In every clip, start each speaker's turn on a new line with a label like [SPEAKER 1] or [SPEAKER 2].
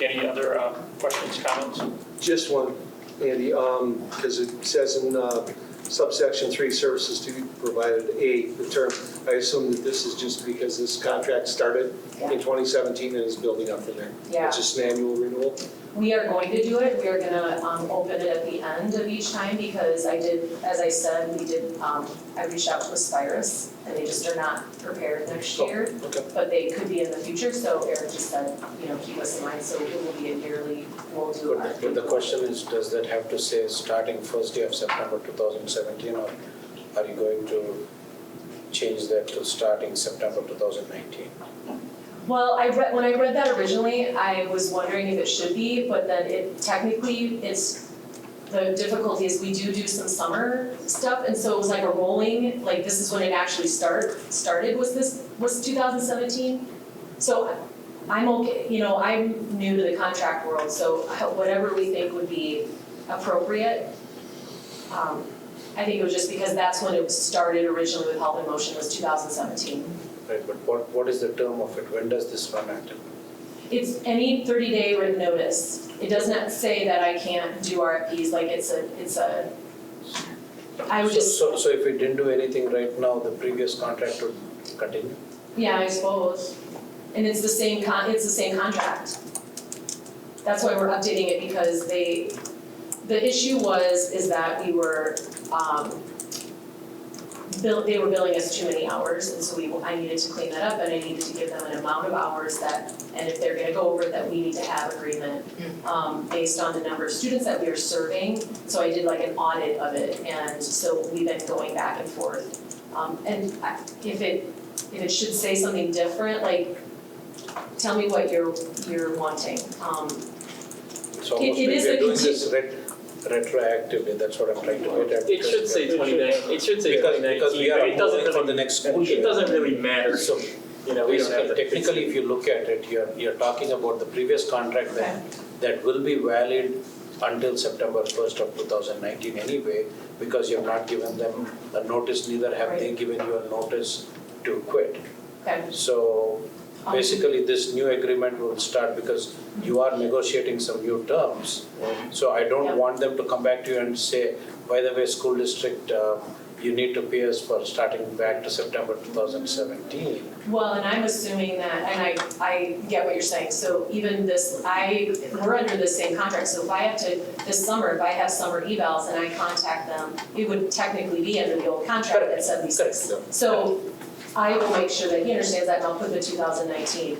[SPEAKER 1] Any other um, questions, comments?
[SPEAKER 2] Just one, Andy, because it says in uh, subsection three, services to be provided, A, the term, I assume that this is just because this contract started in 2017 and is building up from there.
[SPEAKER 3] Yeah.
[SPEAKER 2] It's just an annual renewal.
[SPEAKER 3] We are going to do it, we are gonna, um, open it at the end of each time, because I did, as I said, we did, um, I reached out to Aspirus, and they just are not prepared next
[SPEAKER 2] Oh,
[SPEAKER 3] year,
[SPEAKER 2] Okay.
[SPEAKER 3] but they could be in the future, so Eric just said, you know, keep us in mind, so it will be a yearly, we'll do our.
[SPEAKER 4] But the question is, does that have to say starting first day of September 2017? Or are you going to change that to starting September 2019?
[SPEAKER 3] Well, I read, when I read that originally, I was wondering if it should be, but then it technically, it's, the difficulty is we do do some summer stuff, and so it was like a rolling, like this is when it actually start, started, was this, was two thousand seventeen? So I'm okay, you know, I'm new to the contract world, so whatever we think would be appropriate. Um, I think it was just because that's when it started originally with Health in Motion was two thousand seventeen.
[SPEAKER 4] Right, but what, what is the term of it? When does this run until?
[SPEAKER 3] It's any thirty day written notice. It does not say that I can't do RFPs, like it's a, it's a, I would
[SPEAKER 4] So-
[SPEAKER 3] just,
[SPEAKER 4] So, so if we didn't do anything right now, the previous contract would continue?
[SPEAKER 3] yeah, I suppose. And it's the same con, it's the same contract. That's why we're updating it because they, the issue was, is that we were, um, bill, they were billing us too many hours and so we, I needed to clean that up and I needed to give them an amount of hours that, and if they're gonna go over it, that we need to have agreement um, based on the number of students that we are serving. So I did like an audit of it, and so we've been going back and forth. Um, and I- if it, if it should say something different, like, tell me what you're, you're wanting. Um,
[SPEAKER 4] It's almost
[SPEAKER 3] it
[SPEAKER 4] like
[SPEAKER 3] is
[SPEAKER 4] we
[SPEAKER 3] a
[SPEAKER 4] are doing this ret- retroactively, that's what I'm trying to get at.
[SPEAKER 1] It should say 29, it should say
[SPEAKER 4] Because,
[SPEAKER 1] 2019,
[SPEAKER 4] because we
[SPEAKER 1] but
[SPEAKER 4] are
[SPEAKER 1] it doesn't
[SPEAKER 4] moving for
[SPEAKER 1] really,
[SPEAKER 4] the next school year.
[SPEAKER 1] it doesn't really matter,
[SPEAKER 4] So
[SPEAKER 1] you know, we don't have to.
[SPEAKER 4] Basically, technically, if you look at it, you're, you're talking about the previous contract that, that will be valid until September first of two thousand nineteen anyway, because you've not given them a notice, neither have they given you a notice to quit.
[SPEAKER 3] okay.
[SPEAKER 4] So
[SPEAKER 3] Um,
[SPEAKER 4] basically, this new agreement will start because you are negotiating some new terms. So I don't
[SPEAKER 3] Mm-hmm. Yeah.
[SPEAKER 4] want them to come back to you and say, by the way, school district, uh, you need to pay us for starting back to September two thousand seventeen.
[SPEAKER 3] Well, and I'm assuming that, and I, I get what you're saying, so even this, I, we're under the same contract, so if I have to, this summer, if I have summer evals and I contact them, it would technically be under the old contract at seventy-six. So I will make sure that he understands that and I'll put the two thousand nineteen.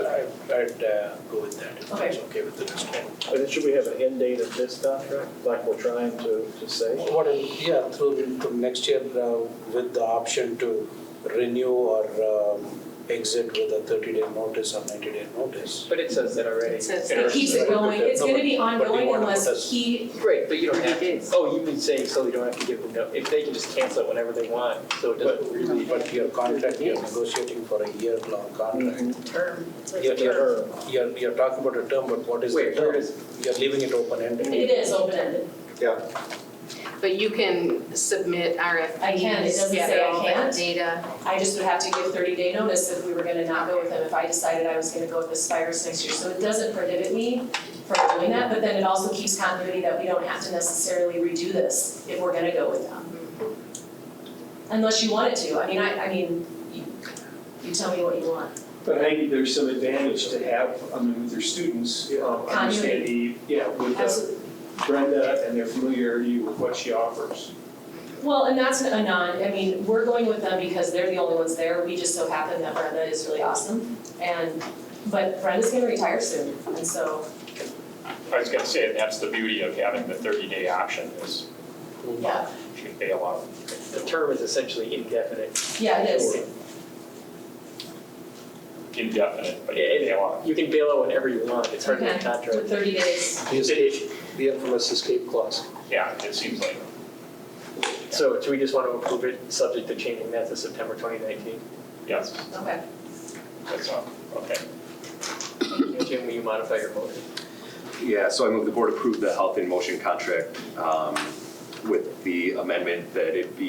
[SPEAKER 4] I'd, I'd uh, go with that, if that's okay with the next one.
[SPEAKER 5] But should we have an end date of this contract, like we're trying to, to say?
[SPEAKER 4] What, if- yeah, through, to next year, uh, with the option to renew or um, exit with a thirty-day notice or ninety-day notice.
[SPEAKER 6] But it says that already.
[SPEAKER 7] It says
[SPEAKER 3] It keeps it going, it's gonna be ongoing unless he,
[SPEAKER 6] Right, but you don't have to,
[SPEAKER 7] Thirty days.
[SPEAKER 6] oh, you mean saying so they don't have to give them, no- if they can just cancel it whenever they want, so it doesn't really.
[SPEAKER 4] But your contract, you're negotiating for a year-long
[SPEAKER 6] Mm-hmm.
[SPEAKER 4] contract.
[SPEAKER 3] term,
[SPEAKER 4] You're, you're,
[SPEAKER 5] Or-
[SPEAKER 4] you're, you're talking about a term, but what is the
[SPEAKER 6] Wait, where
[SPEAKER 4] term?
[SPEAKER 6] is,
[SPEAKER 4] You're leaving it open-ended.
[SPEAKER 3] it is open-ended.
[SPEAKER 7] But you can submit RFPs.
[SPEAKER 3] I can, it doesn't say
[SPEAKER 7] gather
[SPEAKER 3] I
[SPEAKER 7] all that
[SPEAKER 3] can't.
[SPEAKER 7] data.
[SPEAKER 3] I just would have to give thirty day notice if we were gonna not go with him, if I decided I was gonna go with the Spires next year. So it doesn't prohibit me from doing that, but then it also keeps continuity that we don't have to necessarily redo this if we're gonna go with them. Unless you wanted to, I mean, I, I mean, you, you tell me what you want.
[SPEAKER 8] But I think there's some advantage to have, I mean, with your students, um, understand the, yeah, with uh,
[SPEAKER 3] Absolutely.
[SPEAKER 8] Brenda and their familiarity with what she offers.
[SPEAKER 3] Well, and that's a non, I mean, we're going with them because they're the only ones there, we just so happen that Brenda is really awesome. And, but Brenda's gonna retire soon, and so,
[SPEAKER 1] I was gonna say, that's the beauty of having the 30-day option is
[SPEAKER 3] yeah,
[SPEAKER 1] you can bail out.
[SPEAKER 6] the term is essentially indefinite.
[SPEAKER 3] yeah, it is.
[SPEAKER 1] Indefinite, but
[SPEAKER 6] Yeah,
[SPEAKER 1] you
[SPEAKER 6] it-
[SPEAKER 1] can bail out.
[SPEAKER 6] You can bail out whenever you want, it's hard to
[SPEAKER 3] Okay.
[SPEAKER 6] contract.
[SPEAKER 3] For thirty days.
[SPEAKER 2] The escape, the infamous escape clause.
[SPEAKER 1] Yeah, it seems like.
[SPEAKER 6] So do we just want to approve it, subject to changing that to September 2019?
[SPEAKER 1] Yes,
[SPEAKER 3] Okay.
[SPEAKER 1] that's all, okay.
[SPEAKER 6] Jim, will you modify your motion?
[SPEAKER 9] Yeah, so I move the board approve the Health in Motion contract um, with the amendment that it be